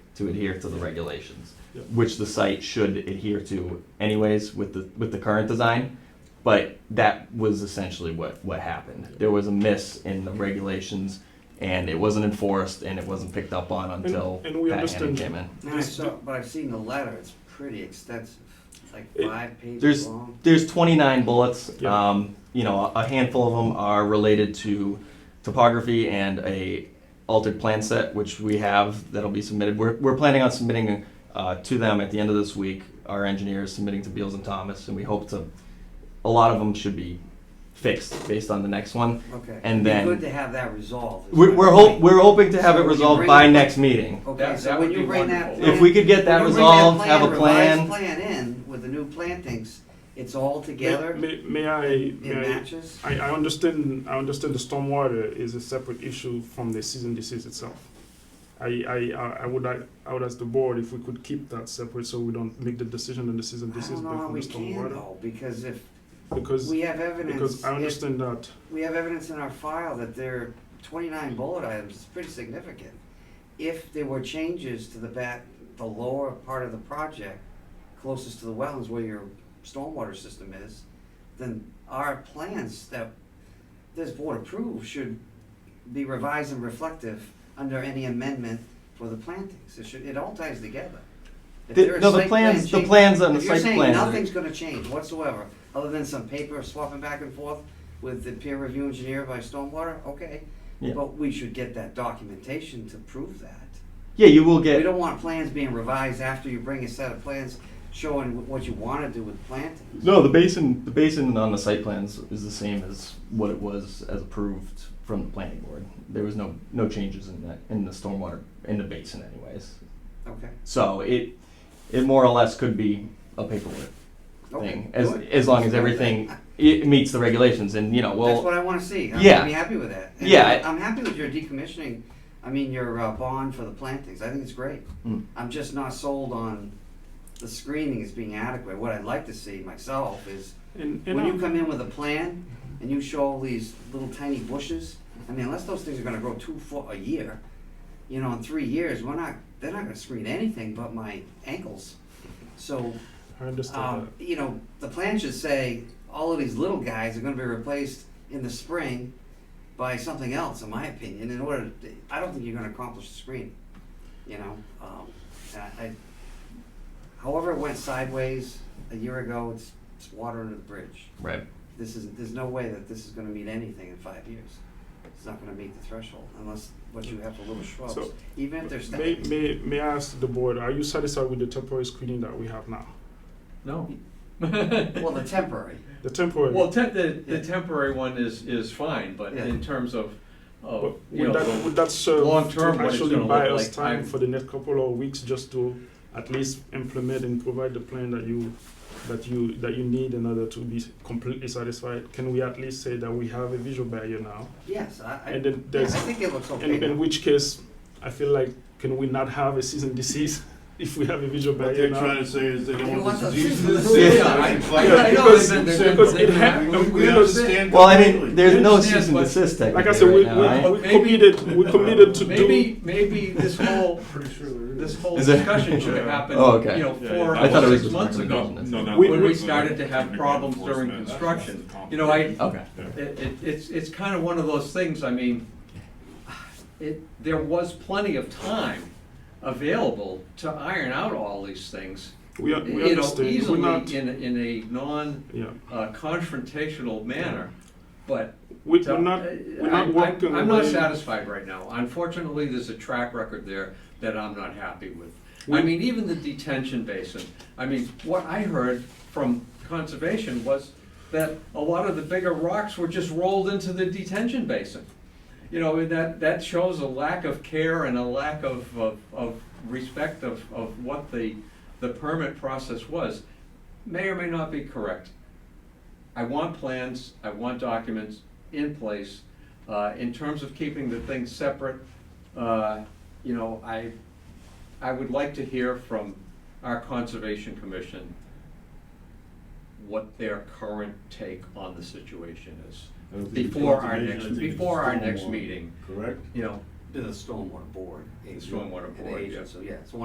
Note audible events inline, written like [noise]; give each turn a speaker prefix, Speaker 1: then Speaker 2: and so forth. Speaker 1: to adhere to the regulations,
Speaker 2: Yep.
Speaker 1: which the site should adhere to anyways with the, with the current design. But that was essentially what, what happened. There was a miss in the regulations and it wasn't enforced and it wasn't picked up on until
Speaker 2: and we
Speaker 1: Pat Hannon
Speaker 2: understand-
Speaker 1: came in.
Speaker 3: And I saw, but I've seen the letter, it's pretty extensive, It's like
Speaker 2: It-
Speaker 3: five
Speaker 1: there's-
Speaker 3: pages long.
Speaker 1: There's 29 bullets.
Speaker 2: Yeah.
Speaker 1: Um, you know, a handful of them are related to topography and a altered plan set, which we have that'll be submitted. We're, we're planning on submitting uh, to them at the end of this week. Our engineers submitting to Beals and Thomas, and we hope to. A lot of them should be fixed based on the next one.
Speaker 3: Okay.
Speaker 1: and
Speaker 3: It'd be
Speaker 1: then-
Speaker 3: Good to have that resolved. is
Speaker 1: We're
Speaker 3: my
Speaker 1: we're,
Speaker 3: point.
Speaker 1: hope, we're hoping to have
Speaker 3: So
Speaker 1: it
Speaker 3: would you
Speaker 1: resolved
Speaker 3: bring
Speaker 1: by
Speaker 3: it-
Speaker 1: next meeting.
Speaker 3: Okay,
Speaker 4: That-
Speaker 3: so
Speaker 4: that
Speaker 3: when
Speaker 4: would
Speaker 3: you
Speaker 4: be
Speaker 3: bring that
Speaker 4: wonderful.
Speaker 3: plan.
Speaker 1: If we could get that
Speaker 3: when you bring that
Speaker 1: resolved, have a plan.
Speaker 3: revised Plan in with the new plantings, it's all together, it
Speaker 2: May, may I, may I,
Speaker 3: matches.
Speaker 2: I, I understand, I understand the stormwater is a separate issue from the season disease itself. I, I, I- I would, like- I would ask the board if we could keep that separate so we don't make the decision on the season
Speaker 3: I
Speaker 2: disease
Speaker 3: don't know
Speaker 2: based
Speaker 3: how
Speaker 2: on the
Speaker 3: we can
Speaker 2: stormwater.
Speaker 3: though, because if
Speaker 2: Because,
Speaker 3: we have evidence,
Speaker 2: because I
Speaker 3: if
Speaker 2: understand that,
Speaker 3: we have evidence in our file that there are twenty-nine bullet items, it's pretty significant. If there were changes to the back, the lower part of the project, closest to the wetlands where your stormwater system is, then our plans that this board approved should be revised and reflective under any amendment for the plantings. It should, it all ties together. If
Speaker 1: The-
Speaker 3: there are
Speaker 1: no, the
Speaker 3: site plan
Speaker 1: plans- the
Speaker 3: change-
Speaker 1: plans on the
Speaker 3: if you're
Speaker 1: site
Speaker 3: saying
Speaker 1: plans are-
Speaker 3: Nothing's gonna change whatsoever, other than some paper swapping back and forth with the peer review engineer by stormwater, okay.
Speaker 1: Yeah.
Speaker 3: But we should get that documentation to prove that.
Speaker 1: Yeah, you will
Speaker 3: We
Speaker 1: get
Speaker 3: don't want plans being revised after you bring a set of plans showing what you wanna do with plantings.
Speaker 1: No, the basin, the basin on the site plans is the same as what it was as approved from the planning board. There was no, no changes in that, in the stormwater, in the basin anyways.
Speaker 3: Okay,
Speaker 1: So it, it more or less could be a paperwork
Speaker 3: okay.
Speaker 1: thing, as,
Speaker 3: good.
Speaker 1: as long as
Speaker 3: [laughs]
Speaker 1: everything, it meets the regulations and, you know,
Speaker 3: That's
Speaker 1: well,
Speaker 3: what I wanna see. I'm
Speaker 1: yeah.
Speaker 3: be happy with that. And
Speaker 1: Yeah,
Speaker 3: I'm-
Speaker 1: I-
Speaker 3: I'm happy with your decommissioning, I mean, your uh, bond for the plantings. I think it's great.
Speaker 1: Mm.
Speaker 3: I'm just not sold on the screening as being adequate. What I'd like to see myself is
Speaker 2: and, and
Speaker 3: When you
Speaker 2: I,
Speaker 3: come in with a plan and you show all these little tiny bushes, I mean, unless those things are gonna grow two foot a year, you know, in three years, we're not, they're not gonna screen anything but my ankles. So,
Speaker 2: I understand
Speaker 3: um,
Speaker 2: that.
Speaker 3: you know, the plan should say, all of these little guys are gonna be replaced in the spring by something else, in my opinion, in order, to- I don't think you're gonna accomplish the screen, you know? Um, and I, I- however it went sideways a year ago, it's, it's water under the bridge
Speaker 1: right.
Speaker 3: this is, there's no way that this is gonna meet anything in five years. It's not gonna meet the threshold unless, what you have for little shrubs,
Speaker 2: So,
Speaker 3: even if they're
Speaker 2: May,
Speaker 3: standing.
Speaker 2: may, may I ask the board, are you satisfied with the temporary screening that we have now?
Speaker 4: No.
Speaker 3: [laughs] Well, the temporary,
Speaker 2: The temporary?
Speaker 4: Well, te- the, the
Speaker 3: Yeah.
Speaker 4: temporary one is, is fine, but
Speaker 3: Yeah.
Speaker 4: in terms of, of,
Speaker 2: Would
Speaker 4: you know,
Speaker 2: that, would that serve
Speaker 4: long-term
Speaker 2: to
Speaker 4: what it's
Speaker 2: actually
Speaker 4: gonna
Speaker 2: buy
Speaker 4: look
Speaker 2: us
Speaker 4: like?
Speaker 2: time
Speaker 4: I'm-
Speaker 2: for the next couple of weeks just to at least implement and provide the plan that you that you that you need in order to be completely satisfied? Can we at least say that we have a visual barrier now?
Speaker 3: yes, I, I,
Speaker 2: and then
Speaker 3: yeah, I
Speaker 2: there's
Speaker 3: think it looks okay
Speaker 2: in, in
Speaker 3: now.
Speaker 2: which case I feel like can we not have a season disease [laughs] if we have a visual
Speaker 5: What
Speaker 2: barrier
Speaker 5: they're
Speaker 2: now?
Speaker 5: trying to say is they
Speaker 3: They
Speaker 5: don't
Speaker 3: want
Speaker 5: want
Speaker 3: the
Speaker 5: the disease
Speaker 3: season
Speaker 5: to
Speaker 3: to
Speaker 4: [laughs]
Speaker 5: sit. [laughs]
Speaker 4: Yeah, I- I- I know
Speaker 2: Because-
Speaker 4: they've been- they've
Speaker 2: because
Speaker 4: been-
Speaker 2: it ha-
Speaker 4: they've been-
Speaker 5: We understand
Speaker 1: Well, I mean,
Speaker 5: completely.
Speaker 1: there's no
Speaker 4: Understand,
Speaker 1: cease and
Speaker 4: but-
Speaker 1: desist
Speaker 2: Like I said,
Speaker 1: technically
Speaker 2: we,
Speaker 1: right now, right?
Speaker 2: we, we
Speaker 4: Maybe- Uh,
Speaker 2: committed we committed to do
Speaker 4: Maybe, maybe this whole,
Speaker 5: Pretty sure there
Speaker 4: this whole
Speaker 1: Is it-
Speaker 4: discussion should have happened,
Speaker 1: Oh, okay.
Speaker 4: you know,
Speaker 5: Yeah,
Speaker 4: four
Speaker 5: yeah.
Speaker 1: I thought it
Speaker 4: or
Speaker 1: was just
Speaker 4: six months ago.
Speaker 1: recommendation.
Speaker 5: No, not
Speaker 2: We-
Speaker 5: the-
Speaker 2: when we
Speaker 4: started to have problems during construction. You know, I-
Speaker 1: Okay.
Speaker 4: It, it, it's, it's kind of one of those things, I mean, it, there was plenty of time available to iron out all these things.
Speaker 2: we,
Speaker 4: You
Speaker 2: we
Speaker 4: know,
Speaker 2: understand we're not
Speaker 4: easily in, a- in a non,
Speaker 2: yeah
Speaker 4: uh, confrontational manner, but
Speaker 2: we,
Speaker 4: So,
Speaker 2: we're not
Speaker 4: uh,
Speaker 2: we're
Speaker 4: I-
Speaker 2: not
Speaker 4: I-
Speaker 2: working
Speaker 4: I'm not
Speaker 2: away-
Speaker 4: satisfied right now. Unfortunately, there's a track record there that I'm not happy with. I
Speaker 2: We-
Speaker 4: mean, even the detention basin, I mean, what I heard from conservation was that a lot of the bigger rocks were just rolled into the detention basin. You know, and that, that shows a lack of care and a lack of, of, of respect of, of what the, the permit process was. May or may not be correct. I want plans, I want documents in place. Uh, in terms of keeping the things separate, uh, you know, I, I would like to hear from our Conservation Commission what their current take on the situation is, before our next- before our next meeting.
Speaker 5: Correct?
Speaker 4: you know,
Speaker 3: To the stormwater board.
Speaker 4: The stormwater
Speaker 3: An
Speaker 4: board,
Speaker 3: agent,
Speaker 4: yeah.
Speaker 3: So, yeah, it's one